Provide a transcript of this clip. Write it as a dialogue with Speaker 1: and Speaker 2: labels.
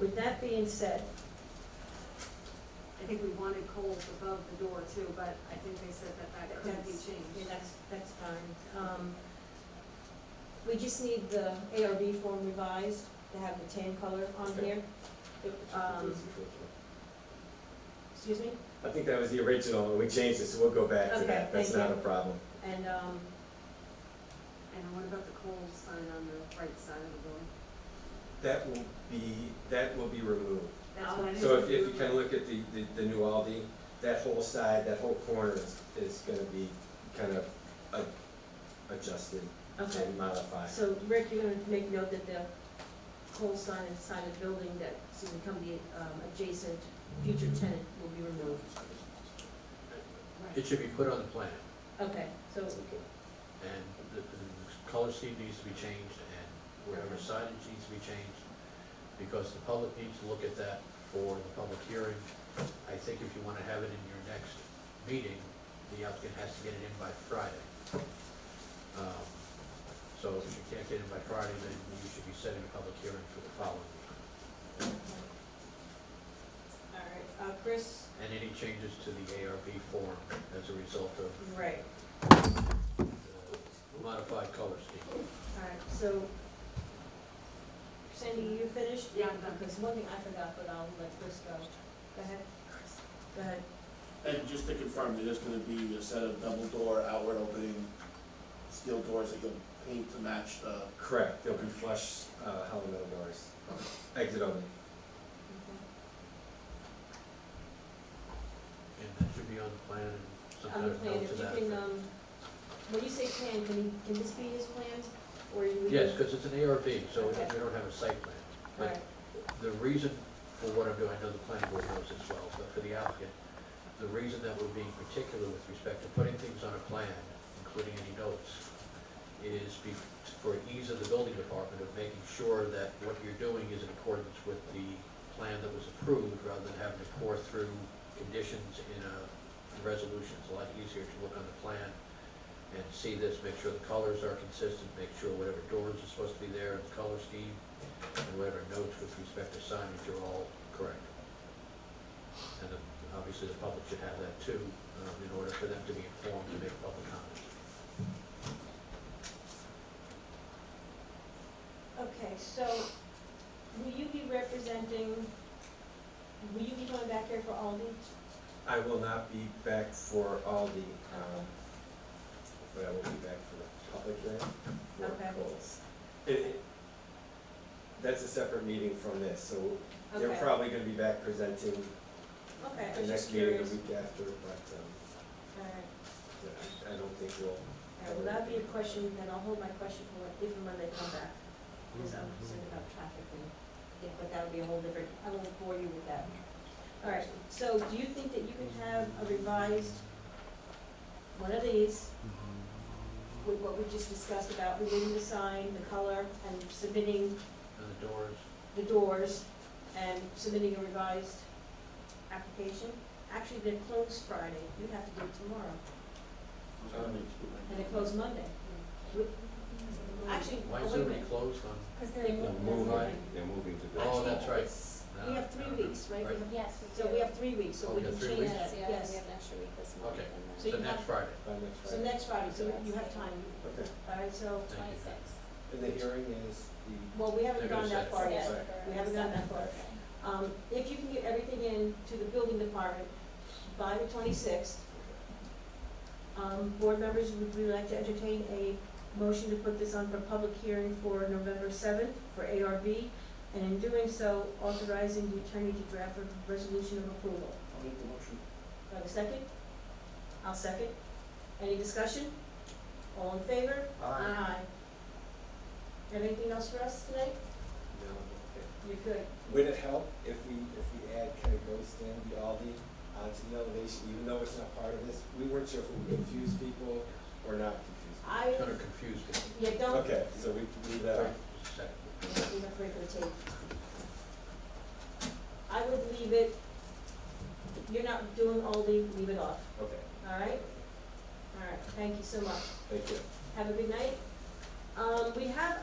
Speaker 1: With that being said,
Speaker 2: I think we wanted Kohl's above the door too, but I think they said that that could be
Speaker 1: That's- yeah,
Speaker 2: changed.
Speaker 1: that's, that's fine. Um, we just need the ARB form revised to have the tan color on
Speaker 3: Okay.
Speaker 1: here. Um, Excuse me?
Speaker 3: I think that was the original, and we changed it, so we'll go back to
Speaker 1: Okay,
Speaker 3: that, that's
Speaker 1: thank
Speaker 3: not
Speaker 1: you.
Speaker 3: a problem.
Speaker 1: And, um,
Speaker 2: And what about the Kohl's sign on the right side of the door?
Speaker 3: That will be, that will be removed.
Speaker 2: That's what I
Speaker 3: So if,
Speaker 2: didn't-
Speaker 3: if you kind of look at the, the, the new Aldi, that whole side, that whole corner is, is gonna be kind of a- adjusted
Speaker 1: okay.
Speaker 3: and modified.
Speaker 1: So Rick, you're gonna make note that the pole sign inside of the building that soon become the um, adjacent future tenant will be removed.
Speaker 2: Right.
Speaker 4: It should be put on the plan,
Speaker 1: Okay, so,
Speaker 4: and the, the color scheme needs to be changed, and wherever signage needs to be changed, because the public needs to look at that for the public hearing. I think if you wanna have it in your next meeting, the applicant has to get it in by Friday. Um, So if you can't get it by Friday, then you should be setting a public hearing for the following meeting.
Speaker 1: all right, uh, Chris,
Speaker 4: And any changes to the ARB form as a result of
Speaker 1: right,
Speaker 4: the modified color scheme.
Speaker 1: all right, so Sandy, you finished?
Speaker 2: Yeah, I'm done.
Speaker 1: Because one thing I forgot, but I'll let Chris go. Go ahead. Go ahead.
Speaker 5: And just to confirm, it is gonna be a set of double door outward opening steel doors that you'll paint to match the,
Speaker 3: Correct, there'll be flush, uh, helmet doors, exit only.
Speaker 4: And that should be on the plan and
Speaker 1: On
Speaker 4: some kind
Speaker 1: the
Speaker 4: of
Speaker 1: plan,
Speaker 4: note
Speaker 1: if
Speaker 4: to
Speaker 1: you
Speaker 4: that.
Speaker 1: can,
Speaker 4: effect.
Speaker 1: um, when you say plan, can, you- can this be his plan? Or you would?
Speaker 4: Yes, because it's an ARB, so we
Speaker 1: Okay.
Speaker 4: we don't have a site plan.
Speaker 1: All right,
Speaker 4: But the reason for what I'm doing, I know the planning board knows as well, but for the applicant, the reason that we're being particular with respect to putting things on a plan, including any notes, is be- for ease of the building department of making sure that what you're doing is in accordance with the plan that was approved, rather than having to pour through conditions in a resolution. It's a lot easier to look on the plan and see this, make sure the colors are consistent, make sure whatever doors are supposed to be there, the color scheme, and whatever notes with respect to signage are all correct. And then, obviously, the public should have that too, um, in order for them to be informed to make public comments.
Speaker 1: okay, so will you be representing, will you be going back here for Aldi?
Speaker 3: I will not be back for Aldi, um, but I will be back for the public hearing
Speaker 1: Okay.
Speaker 3: for Kohl's. It, it, that's a separate meeting from this, so they're
Speaker 1: Okay.
Speaker 3: probably gonna be back presenting
Speaker 1: Okay, I
Speaker 3: the
Speaker 1: was just
Speaker 3: next meeting, the
Speaker 1: curious.
Speaker 3: week after, but, um,
Speaker 1: All right,
Speaker 3: I- I don't think we'll,
Speaker 1: all right, well, that'd be a question, then I'll hold my question for when- even when they come back, because I'm concerned about traffic and, yeah, but that would be a whole different, I won't bore you with that. All right, so do you think that you can have a revised, one of these,
Speaker 4: Uh,
Speaker 1: with what we just discussed about removing the sign, the color, and submitting
Speaker 4: And the doors,
Speaker 1: the doors and submitting a revised application. Actually, they're closed Friday, you have to do it tomorrow, and they close Monday. Actually,
Speaker 4: why
Speaker 1: oh,
Speaker 4: is
Speaker 1: wait a
Speaker 4: everybody
Speaker 1: minute,
Speaker 4: closed on,
Speaker 6: Because
Speaker 1: They
Speaker 6: they're,
Speaker 1: move-
Speaker 3: they're
Speaker 1: they're
Speaker 3: moving,
Speaker 1: moving.
Speaker 3: they're moving to
Speaker 4: oh,
Speaker 3: Boston.
Speaker 4: that's
Speaker 6: Actually,
Speaker 4: right.
Speaker 6: it's-
Speaker 4: No,
Speaker 1: We have
Speaker 4: no,
Speaker 1: three
Speaker 4: no.
Speaker 1: weeks, right? We
Speaker 4: Right.
Speaker 1: have-
Speaker 6: yes, we do.
Speaker 1: So we have three weeks, so
Speaker 4: Oh,
Speaker 1: we
Speaker 4: we
Speaker 1: can
Speaker 4: got three
Speaker 1: change
Speaker 4: weeks?
Speaker 1: that,
Speaker 6: Yes, yeah, we
Speaker 1: yes.
Speaker 6: have an extra week this month. and
Speaker 4: Okay.
Speaker 1: So
Speaker 6: then
Speaker 4: So
Speaker 1: you
Speaker 4: next
Speaker 1: have-
Speaker 4: Friday,
Speaker 3: By next
Speaker 1: So
Speaker 3: Friday.
Speaker 1: next Friday, so you have time,
Speaker 3: Okay,
Speaker 1: all right, so,
Speaker 4: thank you.
Speaker 6: Twenty-six.
Speaker 3: and the hearing is the,
Speaker 1: well, we haven't
Speaker 4: They're
Speaker 1: gone
Speaker 4: gonna
Speaker 1: that
Speaker 4: set it.
Speaker 1: far yet.
Speaker 6: Yeah, for
Speaker 3: sorry.
Speaker 1: We haven't done that far.
Speaker 6: Saturday.
Speaker 1: Um, if you can get everything in to the building department by the twenty-sixth, um, board members, would we like to entertain a motion to put this on for public hearing for November seventh for ARB? And in doing so, authorizing the attorney to draft a resolution of approval.
Speaker 5: I'll make the motion.
Speaker 1: Do I have a second? I'll second. Any discussion? All in favor? Aye. Have anything else for us tonight?
Speaker 3: no, okay.
Speaker 1: You're good.
Speaker 3: Would it help if we, if we add kind of ghost in the Aldi onto the elevation, even though it's not part of this? We weren't sure if we confused people or not confused.
Speaker 1: I,
Speaker 4: it's gonna confuse people.
Speaker 1: yeah, don't.
Speaker 3: Okay, so we uh, can leave that,
Speaker 4: Right,
Speaker 3: out.
Speaker 4: just a second.
Speaker 1: We have three for the tape. I would leave it, you're not doing Aldi, leave it off,
Speaker 3: okay,
Speaker 1: all right? All right, thank you so much.
Speaker 3: thank you.
Speaker 1: Have a good night. Um, we have